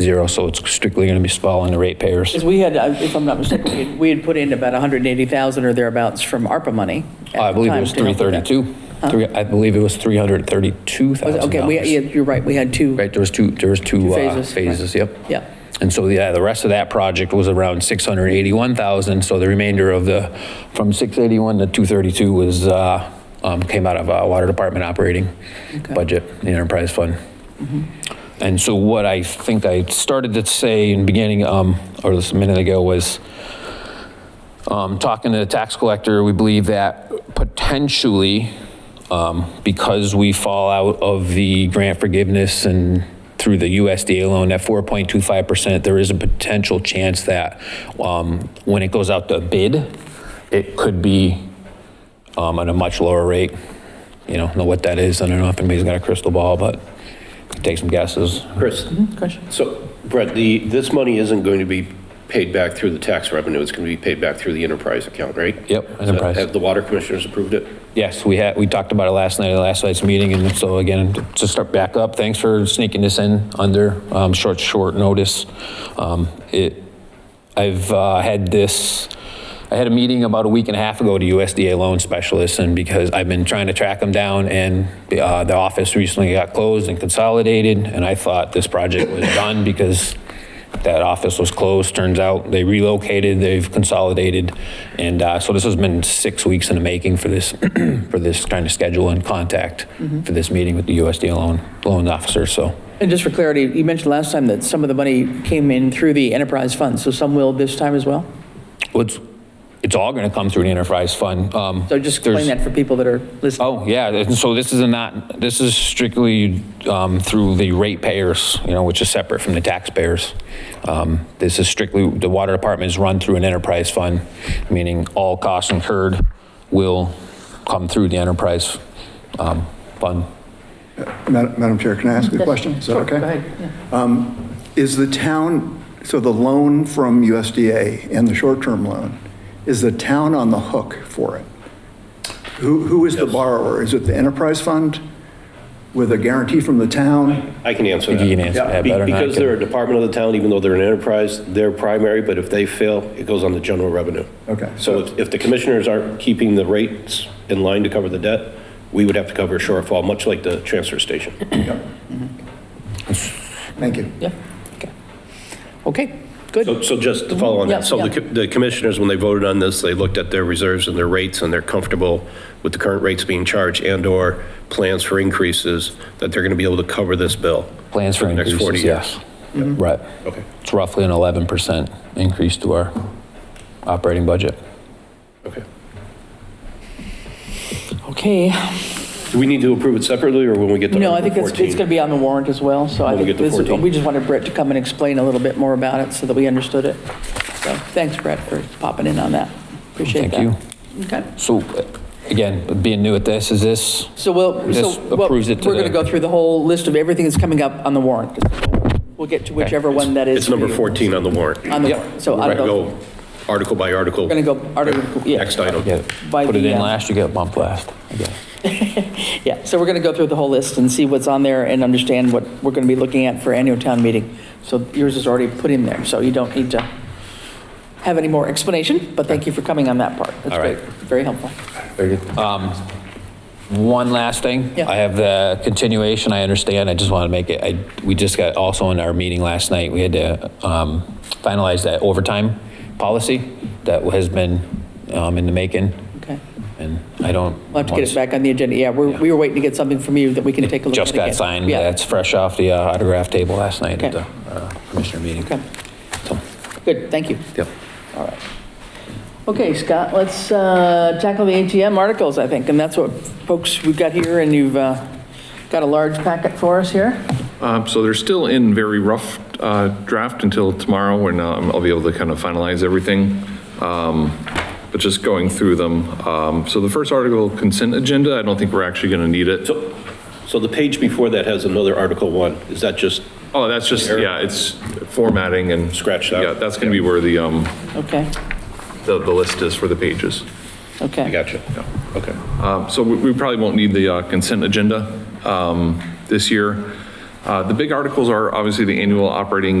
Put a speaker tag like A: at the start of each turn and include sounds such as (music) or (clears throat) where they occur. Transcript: A: zero, so it's strictly going to be following the ratepayers.
B: Because we had, uh, if I'm not mistaken, we had- we had put in about 180,000 or thereabouts from ARPA money. at
A: I
B: the
A: believe it
B: time
A: was
B: to help with that.
A: 332. Three- I believe it was
B: Was it-
A: $332,000.
B: Okay, we, yeah, you're right, we had two.
A: Right, there was two, there was two uh,
B: phases, right.
A: phases, yep.
B: Yeah.
A: And so, yeah, the rest of that project was around 681,000, so the remainder of the, from 681 to 232 was, uh, um, came out of uh, Water Department operating
B: Okay. Mm-hmm.
A: budget, the enterprise fund. And so what I think I started to say in beginning, um, or this a minute ago, was um, talking to the tax collector, we believe that potentially, um, because we fall out of the grant forgiveness and through the USDA loan at 4.25%, there is a potential chance that um, when it goes out to bid, it could be um, at a much lower rate. You know, know what that is, I don't know if anybody's got a crystal ball, but take some guesses.
C: Chris,
B: Question?
C: so Brett, the, this money isn't going to be paid back through the tax revenue. It's going to be paid back through the enterprise account, right?
A: Yep,
C: So
A: enterprise.
C: Have the water commissioners approved it?
A: Yes, we had, we talked about it last night, at last night's meeting, and so again, to start back up, thanks for sneaking this in under um, short, short notice. Um, It, I've uh, had this, I had a meeting about a week and a half ago to USDA loan specialists, and because I've been trying to track them down, and the uh, the office recently got closed and consolidated, and I thought this project was done because that office was closed. Turns out they relocated, they've consolidated. And uh, so this has been six weeks in the making for this, (clears throat) for this kind of schedule and contact
B: Mm-hmm.
A: for this meeting with the USDA loan, loan officer. So
B: And just for clarity, you mentioned last time that some of the money came in through the enterprise fund, so some will this time as well?
A: it's, it's all going to come through the enterprise fund. Um,
B: So just
A: there's-
B: explain that for people that are listening.
A: Oh, yeah, and so this is a not, this is strictly um, through the ratepayers, you know, which is separate from the taxpayers. Um, This is strictly, the water department is run through an enterprise fund, meaning all costs incurred will come through the enterprise um, fund.
D: Madam Madam Chair, can I ask a question? Is that okay? Um,
B: Go ahead. yeah.
D: Is the town, so the loan from USDA and the short-term loan, is the town on the hook for it? Who, who is the borrower? Is it the enterprise fund with a guarantee from the town?
C: I can answer that.
A: You can answer that
C: Be-
A: better than I
C: Because
A: can.
C: they're a department of the town, even though they're an enterprise, they're primary, but if they fail, it goes on the general revenue.
D: Okay.
C: So if, if the commissioners aren't keeping the rates in line to cover the debt, we would have to cover a shortfall, much like the transfer station.
D: Thank you.
B: Yeah, okay. Okay, good.
C: So, so just to follow on
B: Yeah,
C: that, so the
B: yeah.
C: co- the commissioners, when they voted on this, they looked at their reserves and their rates, and they're comfortable with the current rates being charged and/or plans for increases, that they're going to be able to cover this bill.
A: Plans for
C: the next
A: increases, yes.
C: 40 years.
B: Mm-hmm.
A: Right.
C: Okay.
A: It's roughly an 11% increase to our operating budget.
C: Okay.
B: Okay.
C: Do we need to approve it separately, or when we get to
B: No, I
C: Article
B: think it's,
C: 14?
B: it's going to be on the warrant as well, so I
C: When we
B: think
C: get to
B: this is,
C: 14.
B: we just wanted Brett to come and explain a little bit more about it so that we understood it. So thanks, Brett, for popping in on that. Appreciate that.
A: Thank
B: you. Okay.
A: So again, being new at this, is this?
B: So we'll,
A: This
B: so well, we're
A: approves it to
B: going to
A: the-
B: go through the whole list of everything that's coming up on the warrant. We'll get to whichever one that is.
C: It's number
B: for you.
C: 14 on the warrant.
B: On the
A: Yep.
B: warrant, so I
C: We're
B: don't know.
C: going to go article by article.
B: We're going to go, article- yeah.
C: Next item.
A: Yeah,
B: By
A: put it
B: the,
A: in
B: uh,
A: last, you get bumped last, I guess.
B: Yeah, so we're going to go through the whole list and see what's on there and understand what we're going to be looking at for annual town meeting. So yours is already put in there, so you don't need to have any more explanation, but thank you for coming on that part. That's
A: All right.
B: great. Very helpful.
A: Very good. Um, One last thing.
B: Yeah.
A: I have the continuation, I understand, I just want to make it, I, we just got, also in our meeting last night, we had to um, finalize that overtime policy that has been um, in the making,
B: Okay.
A: and I don't.
B: We'll have to get it back on the agenda. Yeah, we're, we were waiting to get something from you that we can take a look at.
A: Just got
B: again.
A: signed,
B: Yeah.
A: that's fresh off the uh, autograph table last night at the
B: Okay.
A: uh, commissioner meeting.
B: Okay.
A: So,
B: Good, thank you.
A: Yep.
B: Okay, Scott, let's uh, tackle the ATM articles, I think, and that's what, folks, we've got here, and you've uh, got a large packet for us here.
E: Um, So they're still in very rough uh, draft until tomorrow, when um, I'll be able to kind of finalize everything. Um, But just going through them, um, so the first article, consent agenda, I don't think we're actually going to need it.
C: So, so the page before that has another Article 1. Is that just,
E: Oh, that's just, yeah, it's formatting and.
C: Scratch that.
E: Yeah, that's going to be where the, um,
B: Okay,
E: the the list is for the pages.
B: okay.
C: I got you. Okay.
E: Um, So we we probably won't need the uh, consent agenda um, this year. Uh, The big articles are obviously the annual operating